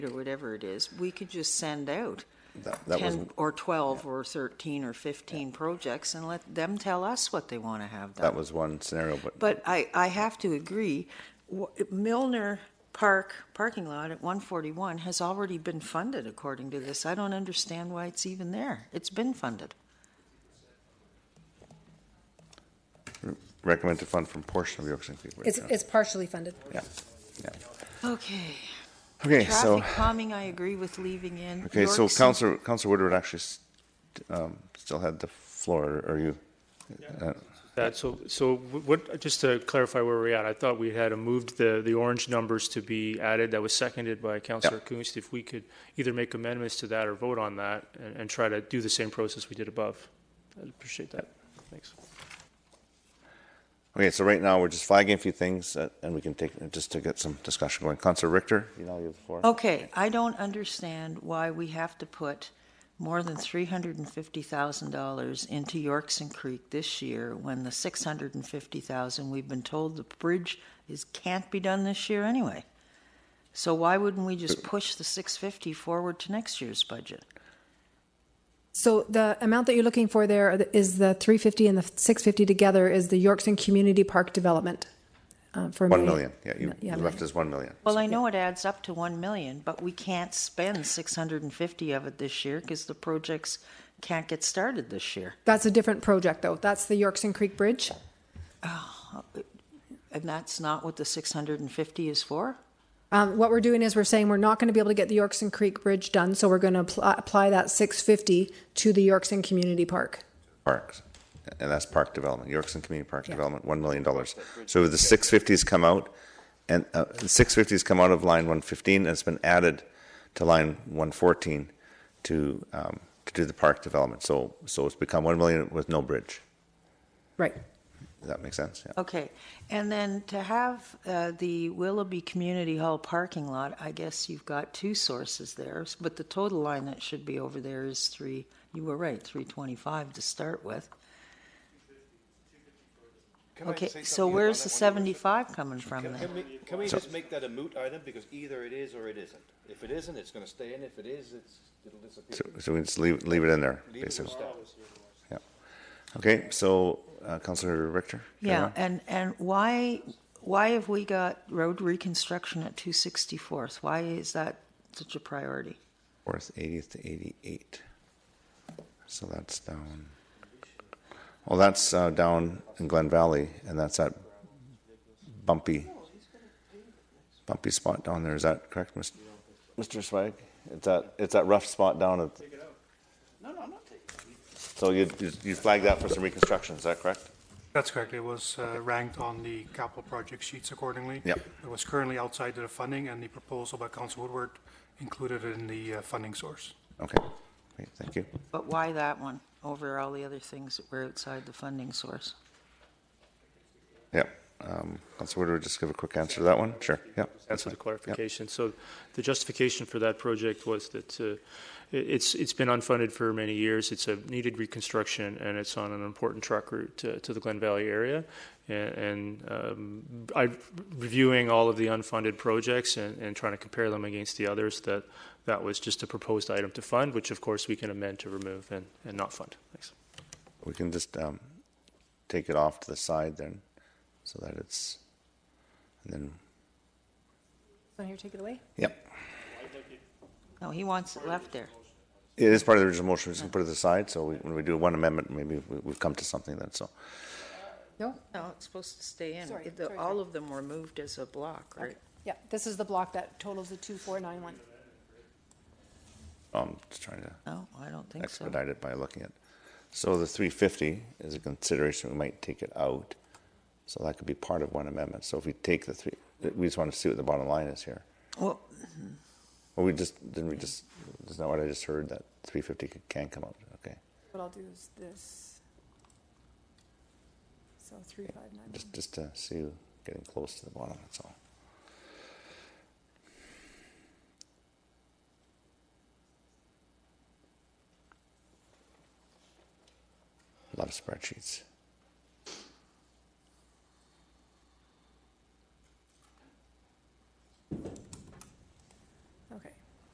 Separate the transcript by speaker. Speaker 1: or whatever it is, we could just send out
Speaker 2: That, that was,
Speaker 1: 10 or 12 or 13 or 15 projects and let them tell us what they want to have done.
Speaker 2: that was one scenario, but,
Speaker 1: But I, I have to agree, w- Milner Park parking lot at 141 has already been funded according to this. I don't understand why it's even there. It's been funded.
Speaker 2: recommend to fund from portion of York St. People.
Speaker 3: It's, it's partially funded.
Speaker 2: Yeah, yeah.
Speaker 1: Okay.
Speaker 2: Okay, so,
Speaker 1: Traffic calming, I agree with leaving in.
Speaker 2: okay, so
Speaker 1: York's-
Speaker 2: Counselor, Counselor Woodward actually s- um, still had the floor, or you? uh,
Speaker 4: That, so, so what, just to clarify where we're at, I thought we had moved the, the orange numbers to be added, that was seconded by Councillor Kunst. If we could either make amendments to that or vote on that and, and try to do the same process we did above. I'd appreciate that. Thanks.
Speaker 2: Okay, so right now, we're just flagging a few things, uh, and we can take, just to get some discussion going. Counselor Richter, you know, you have the floor.
Speaker 1: Okay, I don't understand why we have to put more than three hundred and fifty thousand dollars into Yorkson Creek this year when the six hundred and fifty thousand, we've been told the bridge is, can't be done this year anyway. So why wouldn't we just push the six fifty forward to next year's budget?
Speaker 3: So the amount that you're looking for there is the 350 and the 650 together is the Yorkson Community Park Development uh, for a
Speaker 2: One million,
Speaker 3: million.
Speaker 2: yeah, you
Speaker 3: Yeah,
Speaker 2: you left
Speaker 3: million.
Speaker 2: us one million.
Speaker 1: Well, I know it adds up to one million, but we can't spend six hundred and fifty of it this year because the projects can't get started this year.
Speaker 3: That's a different project though. That's the Yorkson Creek Bridge.
Speaker 1: And that's not what the six hundred and fifty is for?
Speaker 3: Um, what we're doing is we're saying we're not going to be able to get the Yorkson Creek Bridge done, so we're going to apply, apply that 650 to the Yorkson Community Park.
Speaker 2: Parks, and that's park development, Yorkson Community Park Development, one million dollars. So the six fifties come out, and, uh, the six fifties come out of line one fifteen, and it's been added to line one fourteen to, um, to do the park development. So, so it's become one million with no bridge.
Speaker 3: Right.
Speaker 2: Does that make sense? Yeah.
Speaker 1: Okay, and then to have uh, the Willoughby Community Hall parking lot, I guess you've got two sources there, s- but the total line that should be over there is three, you were right, 325 to start with.
Speaker 5: Can I
Speaker 1: Okay,
Speaker 5: say
Speaker 1: so
Speaker 5: something
Speaker 1: where's
Speaker 5: about
Speaker 1: the
Speaker 5: that one?
Speaker 1: 75 coming from
Speaker 5: Can-
Speaker 1: then?
Speaker 5: Can we, can we just make that a moot item, because either it is or it isn't. If it isn't, it's gonna stay in, if it is, it's, it'll
Speaker 2: So,
Speaker 5: disappear.
Speaker 2: so we just leave, leave it in there,
Speaker 5: Leave it as
Speaker 2: basically.
Speaker 5: status.
Speaker 2: Yeah. Okay, so, uh, Counselor Richter? carry
Speaker 1: Yeah,
Speaker 2: on.
Speaker 1: and, and why, why have we got road reconstruction at 264th? Why is that such a priority?
Speaker 2: Fourth, eightieth to eighty-eight. So that's down. Well, that's uh, down in Glen Valley, and that's that bumpy, bumpy spot down there. Is that correct, Mis- Mr. Swag? It's that it's that rough spot down at. Take it out. No, no, I'm not taking. it. So you you flagged that for some reconstruction. Is that correct?
Speaker 6: That's correct. It was uh, ranked on the capital project sheets accordingly.
Speaker 2: Yep.
Speaker 6: It was currently outside of the funding, and the proposal by Council Woodward included it in the uh, funding source.
Speaker 2: Okay. Great. Thank you.
Speaker 1: But why that one over all the other things that were outside the funding source?
Speaker 2: Yep. Um, Councilor Woodward, just give a quick answer to that one. Sure. Yep.
Speaker 4: That's for the
Speaker 2: fine.
Speaker 4: clarification. So the justification for that project was that uh, i- it's, it's been unfunded for many years. It's a needed reconstruction and it's on an important truck route to, to the Glen Valley area. A- And um, I, reviewing all of the unfunded projects and, and trying to compare them against the others, that, that was just a proposed item to fund, which of course we can amend to remove and, and not fund. Thanks.
Speaker 2: We can just um, take it off to the side then, so that it's, and then,
Speaker 3: So here, take it away.
Speaker 2: yep.
Speaker 1: No, he wants it left there.
Speaker 2: It is part of the original motion, we just can put it to the side, so we- when we do one amendment, maybe we- we've come to something uh, then, so.
Speaker 3: No.
Speaker 1: No, it's supposed to stay in.
Speaker 3: Sorry,
Speaker 1: It- the-
Speaker 3: sorry,
Speaker 1: All of them were moved as a block, right?
Speaker 3: Yeah. This is the block that totals the 2491.
Speaker 2: I'm just trying um, to
Speaker 1: No, I don't think so.
Speaker 2: expedite it by looking at. So the three fifty is a consideration, we might take it out, so that could be part of one amendment. So if we take the three, we just want to see what the bottom line is here.
Speaker 1: Well,
Speaker 2: Well, we just, didn't we just, isn't that what I just heard, that three fifty can come out, okay?
Speaker 3: What I'll do is this. So 3591.
Speaker 2: Just, just to see you getting close to the bottom, that's all. Love spreadsheets.